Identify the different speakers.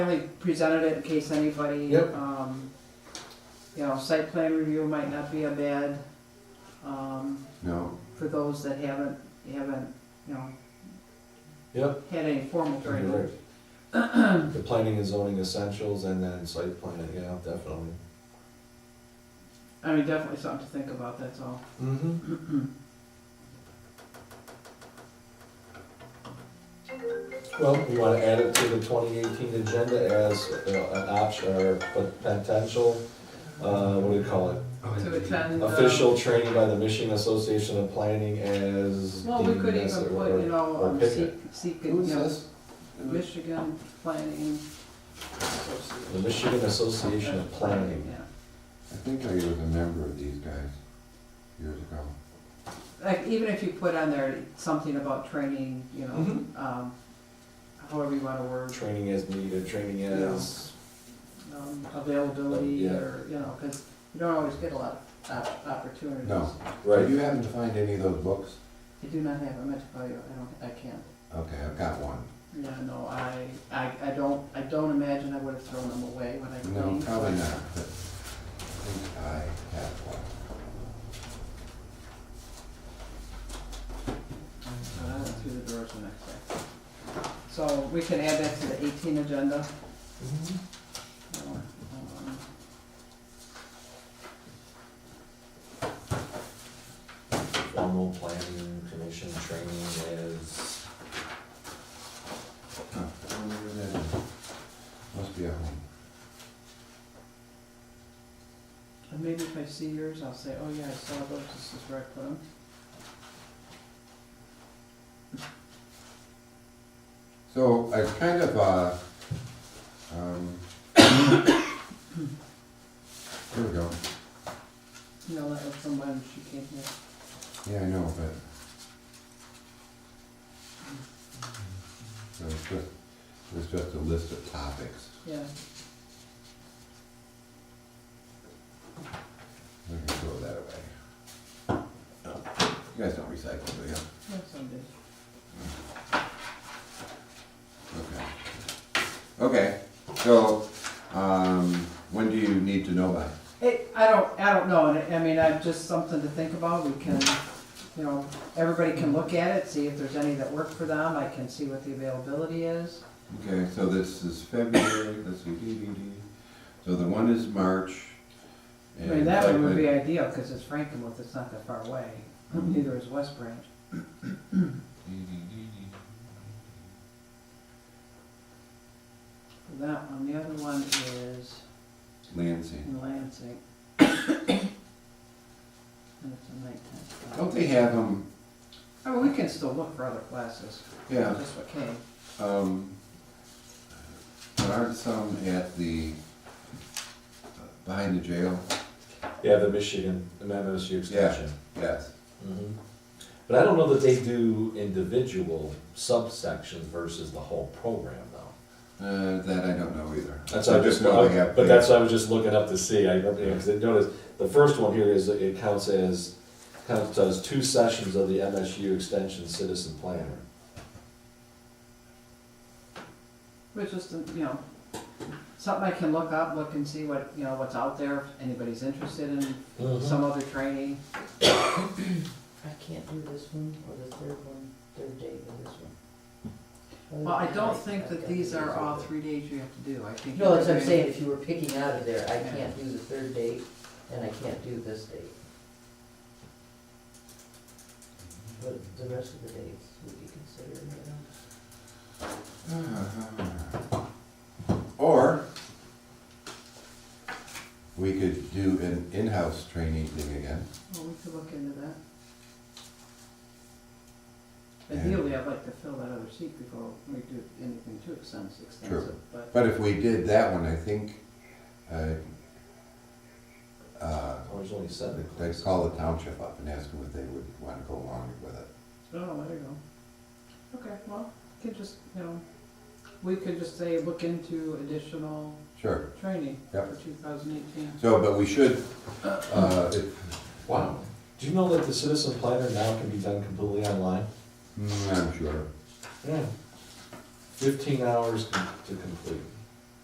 Speaker 1: We presented it in case anybody.
Speaker 2: Yep.
Speaker 1: um, You know, site plan review might not be a bad, um,
Speaker 3: No,
Speaker 1: for those that haven't, haven't, you know,
Speaker 2: Yep,
Speaker 1: had any formal
Speaker 2: you're
Speaker 1: training.
Speaker 2: right. The planning and zoning essentials and then site plan, yeah, definitely.
Speaker 1: I mean, definitely something to think about, that's all.
Speaker 2: Mm-hmm. Well, we wanna add it to the twenty eighteen agenda as you know, an option or potential, uh, what do you call it?
Speaker 1: To attend. uh,
Speaker 2: Official training by the Michigan Association of Planning as.
Speaker 1: Well, we could
Speaker 2: deemed
Speaker 1: even
Speaker 2: necessary,
Speaker 1: put, you
Speaker 2: or-
Speaker 1: know,
Speaker 2: or
Speaker 1: um, seek,
Speaker 2: picnic.
Speaker 1: seek, you
Speaker 3: Who is
Speaker 1: know,
Speaker 3: this?
Speaker 1: Michigan Planning.
Speaker 2: The Michigan Association of Planning.
Speaker 1: Yeah.
Speaker 3: I think I was a member of these guys years ago.
Speaker 1: Like, even if you put on there something about training, you know,
Speaker 3: Mm-hmm.
Speaker 2: Mhm.
Speaker 1: um, however you wanna word.
Speaker 2: Training as needed, training as
Speaker 1: um, availability
Speaker 2: Yeah.
Speaker 1: or, you know, because you don't always get a lot of op- opportunities.
Speaker 3: No. Do
Speaker 2: Right.
Speaker 3: you happen to find any of those books?
Speaker 1: I do not have, I meant to tell you, I don't, I can't.
Speaker 3: Okay, I've got one.
Speaker 1: Yeah, no, I, I, I don't, I don't imagine I would have thrown them away when I
Speaker 3: No,
Speaker 1: cleaned.
Speaker 3: probably not. but I think I have one.
Speaker 1: So I went Uh, through the drawers the next day. So we can add that to the eighteen agenda. Um,
Speaker 2: Formal planning commission training as,
Speaker 3: Huh, I wonder where that is. Must be at home.
Speaker 1: And maybe if I see yours, I'll say, oh yeah, I saw those, this is where I put them.
Speaker 3: So I kind of, uh, um, here we go.
Speaker 1: You know, that was from when she came here.
Speaker 3: Yeah, I know, but. So it's just, it's just a list of topics.
Speaker 1: Yeah,
Speaker 3: We can throw that away. You guys don't recycle, do you?
Speaker 1: that's someday.
Speaker 3: Okay. Okay, so, um, when do you need to know by?
Speaker 1: It, I don't, I don't know, and I- I mean, I've just something to think about, we can, you know, everybody can look at it, see if there's any that work for them, I can see what the availability is.
Speaker 3: Okay, so this is February, let's see, dee, dee, dee. So the one is March.
Speaker 1: I mean,
Speaker 3: and
Speaker 1: that one would
Speaker 3: like-
Speaker 1: be ideal, because it's Frankenmuth, it's not that far away,
Speaker 3: Mm-hmm.
Speaker 1: neither is West Branch.
Speaker 3: Dee, dee, dee, dee.
Speaker 1: That one, the other one is
Speaker 3: Lansing.
Speaker 1: in Lansing. And it's a nighttime.
Speaker 3: Don't they have them,
Speaker 1: I mean, we can still look for other classes,
Speaker 3: yeah,
Speaker 1: just what came.
Speaker 3: um, there are some at the, uh, behind the jail?
Speaker 2: yeah, the Michigan, the MSU extension.
Speaker 3: Yes.
Speaker 2: Mhm. But I don't know that they do individual subsections versus the whole program though.
Speaker 3: Uh, that I don't know either.
Speaker 2: That's
Speaker 3: I
Speaker 2: what I
Speaker 3: just
Speaker 2: just,
Speaker 3: know they
Speaker 2: but
Speaker 3: have.
Speaker 2: that's what I was just looking up to see, I, because I noticed, the first one here is, it counts as, counts as two sessions of the MSU extension citizen planner.
Speaker 1: Which is, the- you know, something I can look up, look and see what, you know, what's out there, if anybody's interested in
Speaker 2: Mm-hmm.
Speaker 4: Mm-hmm.
Speaker 1: some other training.
Speaker 4: I can't do this one or the third one, third day of this one.
Speaker 1: Well, I don't think that these are all three days you have to do, I think.
Speaker 4: No, that's what I'm
Speaker 1: every-
Speaker 4: saying, if you were picking out of there, I can't do the third date and I can't do this date. But the rest of the dates would be considered, you know.
Speaker 3: Uh-huh. Or we could do an in-house training thing again.
Speaker 1: Well, we could look into that. Ideally, I'd like to fill that other seat before we do anything too extensive, extensive, but,
Speaker 3: But if we did that one, I think, uh, uh,
Speaker 2: Oh, there's only seven.
Speaker 3: they'd call the township up and ask them if they would want to go along with it.
Speaker 1: oh, there you go. Okay, well, we could just, you know, we could just say, look into additional
Speaker 3: Sure.
Speaker 1: training
Speaker 3: Yep.
Speaker 1: for two thousand eighteen.
Speaker 3: So, but we should, uh, if,
Speaker 2: Wow, do you know that the citizen planner now can be done completely online?
Speaker 3: mm, I'm sure.
Speaker 2: Yeah. Fifteen hours com- to complete.